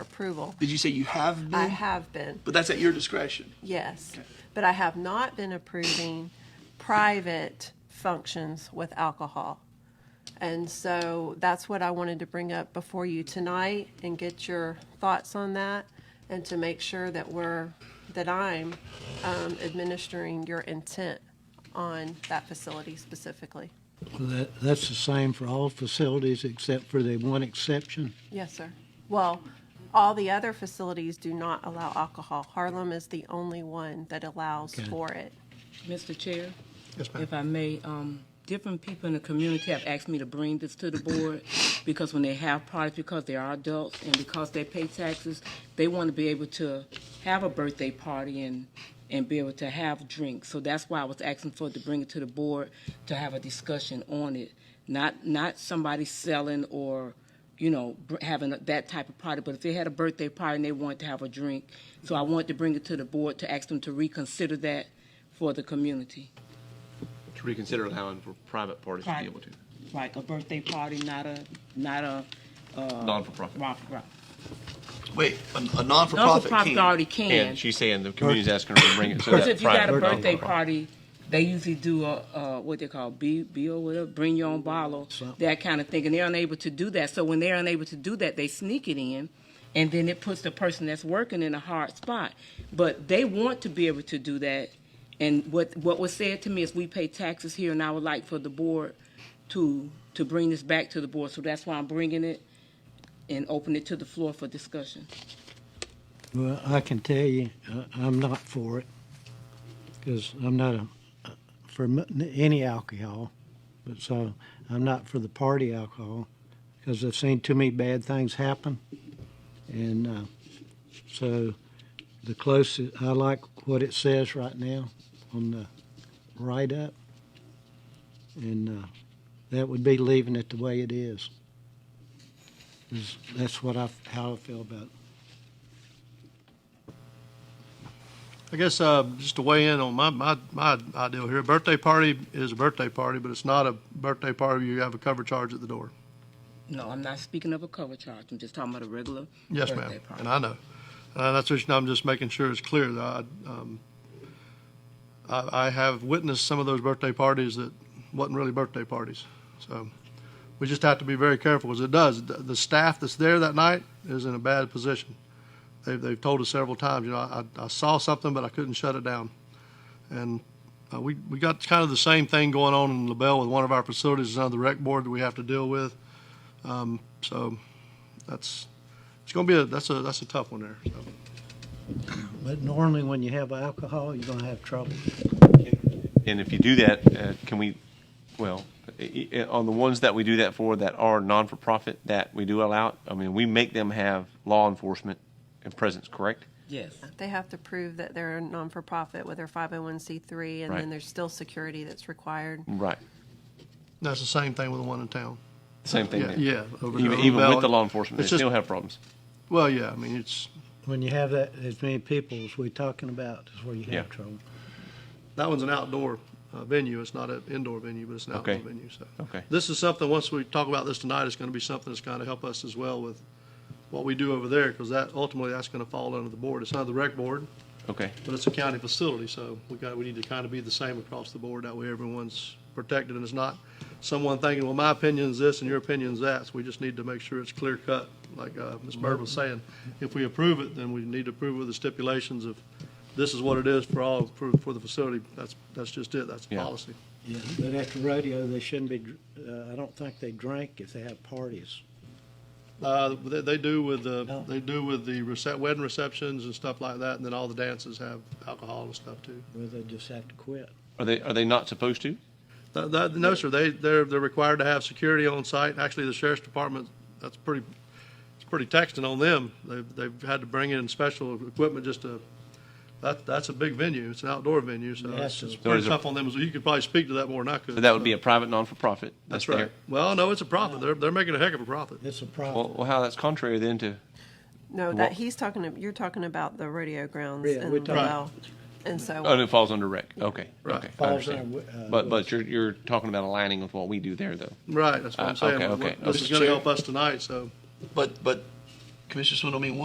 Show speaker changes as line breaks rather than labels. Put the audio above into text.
approval.
Did you say you have been?
I have been,
But that's at your discretion.
yes. But I have not been approving private functions with alcohol. And so that's what I wanted to bring up before you tonight and get your thoughts on that and to make sure that we're, that I'm um, administering your intent on that facility specifically.
Well, That, that's the same for all facilities except for the one exception.
Yes, sir. Well, all the other facilities do not allow alcohol. Harlem is the only one that allows
Okay.
for it.
Mr. Chair?
Yes, ma'am.
If I may, um, different people in the community have asked me to bring this to the board because when they have parties, because they are adults and because they pay taxes, they want to be able to have a birthday party and, and be able to have drinks. So that's why I was asking for to bring it to the board to have a discussion on it. Not, not somebody selling or, you know, br- having that type of party. But if they had a birthday party and they wanted to have a drink, so I wanted to bring it to the board to ask them to reconsider that for the community.
To reconsider allowing for private parties to be able to,
Like a birthday party, not a, not a, uh,
non-for-profit.
rock, rock.
Wait, a, a
Non-for-profit
non-for-profit can.
already can.
And she's saying the community's asking her to bring it so
Because
that
if you got a
private-
birthday
non-for-profit.
party, they usually do a, uh, what they call B, B or whatever, bring your own bottle, that kind of thing, and they're unable to do that. So when they're unable to do that, they sneak it in, and then it puts the person that's working in a hard spot. But they want to be able to do that, and what, what was said to me is we pay taxes here, and I would like for the board to, to bring this back to the board, so that's why I'm bringing it and open it to the floor for discussion.
Well, I can tell you, uh, I'm not for it because I'm not a, for m- any alcohol. But so I'm not for the party alcohol because I've seen too many bad things happen. And uh, so the closest, I like what it says right now on the write up. And uh, that would be leaving it the way it is. 'Cause That's what I, f- how I feel about it.
I guess uh, just to weigh in on my, my, my ideal here, a birthday party is a birthday party, but it's not a birthday party where you have a cover charge at the door.
No, I'm not speaking of a cover charge. I'm just talking about a regular.
Yes,
birthday
ma'am,
party.
and I know. Uh, that's what I'm just making sure it's clear that I, um, I, I have witnessed some of those birthday parties that wasn't really birthday parties. So we just have to be very careful because it does. The, the staff that's there that night is in a bad position. They've, they've told us several times, you know, I, I saw something, but I couldn't shut it down. And uh, we, we got kind of the same thing going on in LaBelle with one of our facilities, another rec board that we have to deal with. Um, so that's, it's gonna be a, that's a, that's a tough one there. So.
But normally, when you have alcohol, you're gonna have trouble.
And if you do that, uh, can we, well, i- i- on the ones that we do that for that are non-for-profit that we do allow, it, I mean, we make them have law enforcement and presence, correct?
Yes.
They have to prove that they're a non-for-profit with their 501c3, and then
Right.
there's still security that's required.
Right.
That's the same thing with the one in town.
Same thing
Yeah,
there.
yeah. over-
Even,
over
even with
Bell.
the law enforcement, they
It's just-
still have problems.
Well, yeah, I mean, it's,
When you have that, as many people as we're talking about, is where you
Yeah.
have trouble.
that one's an outdoor uh, venue. It's not an indoor venue, but it's an outdoor
Okay.
venue, so.
Okay.
This is something, once we talk about this tonight, it's gonna be something that's gonna help us as well with what we do over there, because that, ultimately, that's gonna fall under the board. It's not the rec board,
Okay.
but it's a county facility, so we got, we need to kind of be the same across the board. That way everyone's protected and it's not someone thinking, well, my opinion's this and your opinion's that. So we just need to make sure it's clear cut, like, uh, Ms. Bird was saying. If we approve it, then we need to approve with the stipulations of this is what it is for all, for, for the facility. That's, that's just it. That's the
Yeah.
policy.
Yeah. But at the rodeo, they shouldn't be. dr- Uh, I don't think they drink if they have parties.
Uh, they, they do with the,
No.
they do with the recep, wedding receptions and stuff like that. And then all the dances have alcohol and stuff too.
Where they just have to quit.
Are they, are they not supposed to?
Th- th- No, sir, they, they're, they're required to have security on site. Actually, the sheriff's department, that's pretty, it's pretty taxing on them. They've, they've had to bring in special equipment just to, that, that's a big venue. It's an outdoor venue, so it's
Yes,
it's
sir.
pretty
So is it-
tough on them. So You could probably speak to that more than I could.
So that would be a private non-for-profit.
That's
there.
right. Well, no, it's a profit. They're, they're making a heck of a profit.
It's a
Well,
problem.
well, how that's contrary then to,
No,
Well-
that he's talking. ab- You're talking about the rodeo grounds
Yeah,
in
we're talking-
Laval, and so
oh, it falls under rec. Okay.
Right.
Okay. I
Falls
understand.
under, uh,
But, but you're, you're talking about aligning with what we do there though.
Right, that's what
Uh,
I'm saying.
okay, okay.
This is gonna
Mr. Chair.
help us tonight, so.
But, but Commissioner Swindle, I mean,